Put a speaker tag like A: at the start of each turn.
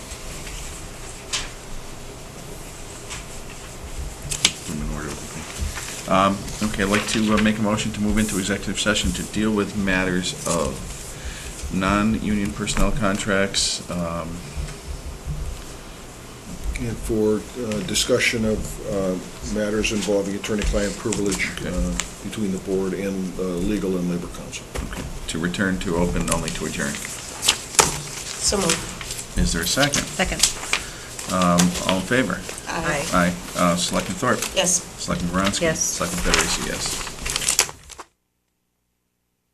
A: Um, Okay, I'd like to uh, make a motion to move into executive session to deal with matters of non-union personnel contracts, um,
B: And for uh, discussion of uh, matters involving attorney-client privilege
A: Okay.
B: uh, between the board and uh, legal and labor council.
A: okay, to return to open, only to adjourn.
C: So moved.
A: Is there a second?
C: Second.
A: Um, All in favor?
C: Aye.
A: Aye. Uh, Selectman Thorpe?
C: Yes.
A: Selectman Bronski?
C: Yes.
A: Selectman Federici, yes.